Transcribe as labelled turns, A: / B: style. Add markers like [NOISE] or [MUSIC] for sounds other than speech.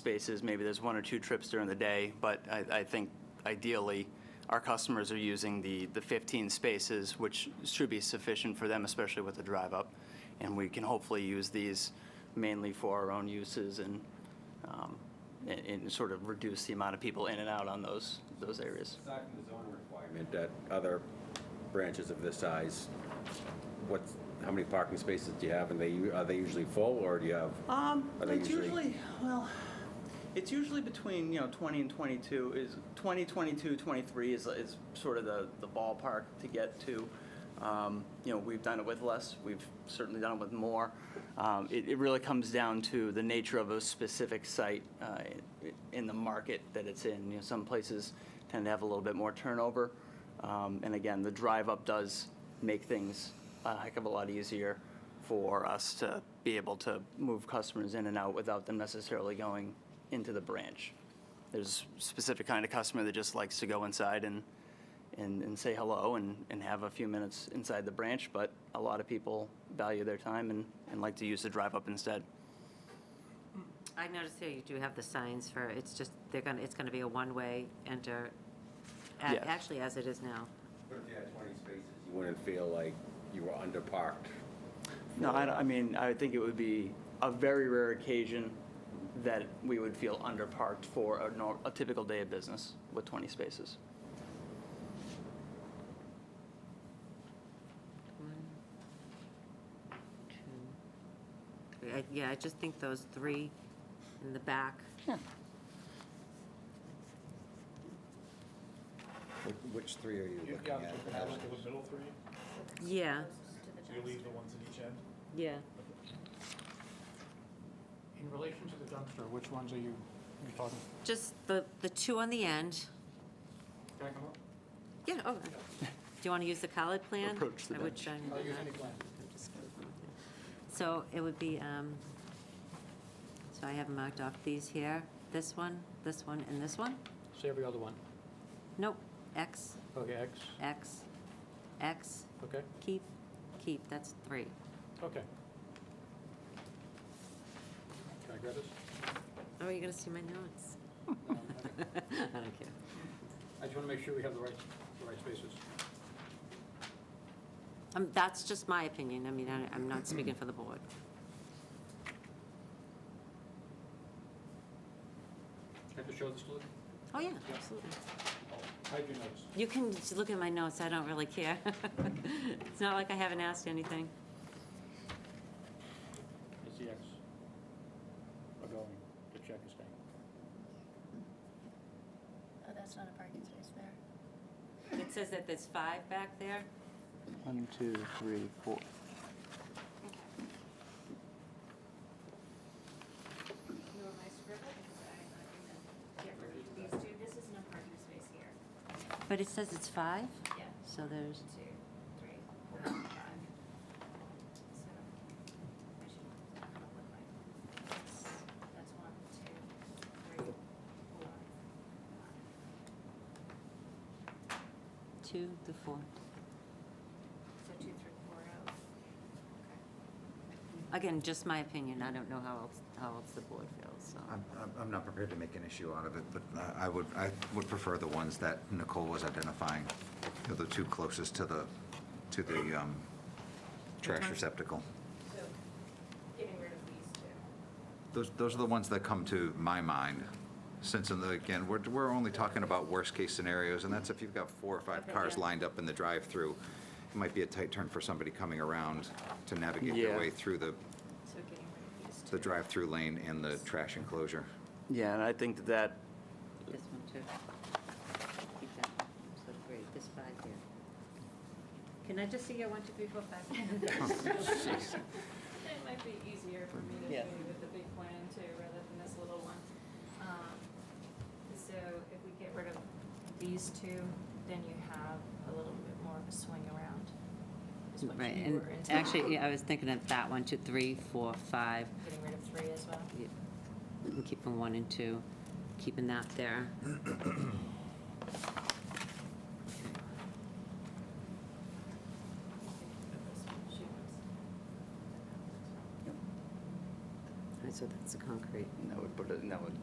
A: spaces, maybe there's one or two trips during the day, but I, I think ideally, our customers are using the, the 15 spaces, which should be sufficient for them, especially with the drive up. And we can hopefully use these mainly for our own uses and, um, and, and sort of reduce the amount of people in and out on those, those areas.
B: Aside from the zoning requirement, that other branches of this size, what's, how many parking spaces do you have, and they, u- are they usually full, or do you have?
A: Um,
B: Are they
A: it's
B: usually-
A: usually, well, it's usually between, you know, 20 and 22 is, 20, 22, 23 is, is sort of the, the ballpark to get to. Um, you know, we've done it with less, we've certainly done it with more. Um, it, it really comes down to the nature of a specific site, uh, i- in the market that it's in. You know, some places tend to have a little bit more turnover. Um, and again, the drive up does make things a heck of a lot easier for us to be able to move customers in and out without them necessarily going into the branch. There's a specific kind of customer that just likes to go inside and, and, and say hello and, and have a few minutes inside the branch, but a lot of people value their time and, and like to use the drive up instead.
C: I noticed here you do have the signs for, it's just, they're gonna, it's gonna be a one-way enter,
A: Yes.
C: a- actually as it is now.
B: But if you had 20 spaces, you wouldn't feel like you were underparked.
A: No, I, don't- I mean, I think it would be a very rare occasion that we would feel underparked for a, nor- a typical day of business with 20 spaces.
C: I- Yeah, I just think those three in the back,
D: Wh- Which three are you
E: You
D: looking at?
E: the middle three,
C: yeah,
E: so you leave the ones at each end.
C: yeah.
F: In relation to the dumpster, which ones are you, you talking,
C: Just the, the two on the end,
F: can I come up?
C: yeah, oh, do you wanna use the colored plan?
A: Approach the
C: I would
A: bench.
C: try and
F: I'll
C: do
F: use
C: that.
F: any plan.
C: So it would be, um, so I have marked off these here, this one, this one, and this one?
F: So every other one.
C: Nope, X,
F: Okay, X,
C: X, X,
F: okay,
C: keep, keep, that's three.
F: okay. Can I grab [LAUGHS] this?
C: Oh, you're gonna see my notes.
F: Um, I
C: [LAUGHS] I don't care.
F: I just want to make sure we have the right, the right spaces.
C: Um, that's just my opinion, I mean, I, I'm not speaking for the board.
F: Can I just show this to them?
C: Oh, yeah, absolutely.
F: I do notice.
C: You can just look at my notes, I don't really care. [LAUGHS] It's not like I haven't asked anything.
F: It's the X. Are going, the check is staying.
G: Oh, that's not a parking space there.
C: It says that there's five back there,
A: One, two, three, four.
G: You were my scribble because I'm not gonna get rid of these two. This is no parking space here.
C: but it says it's five,
G: Yeah.
C: so there's,
G: Two, three, four, five. So, I should look like this. That's one, two, three, four, five.
C: two to four.
G: So two, three, four oh. out. Okay.
C: Again, just my opinion, I don't know how else, how else the board feels, so.
D: I'm, I'm- I'm not prepared to make an issue out of it, but I- I would, I would prefer the ones that Nicole was identifying, They're the two closest to the, to the um, trash receptacle.
G: So, getting rid of these two.
D: Those, those are the ones that come to my mind, since, in the- again, we're, we're only talking about worst-case scenarios, and that's if you've got four or five
C: Okay,
D: cars
C: yeah.
D: lined up in the drive-through, it might be a tight turn for somebody coming around to navigate
A: Yeah.
D: their way through the,
G: So getting rid of these two.
D: the drive-through lane and the trash enclosure.
A: Yeah, and I think that that
C: This one too. Keep that one. So great, this five here. Can I just see your one, two, three, four, five?
G: It might be easier for me to
C: Yeah.
G: do with the big plan too, rather than this little one. Um, So if we get rid of these two, then you have a little bit more of a swing around. is what
C: Right,
G: you
C: and
G: were intending.
C: actually, yeah, I was thinking of that one, two, three, four, five.
G: Getting rid of three as well.
C: Yeah, I'm Keeping one and two, keeping that there. All right, so that's the concrete.
A: that would put it, that would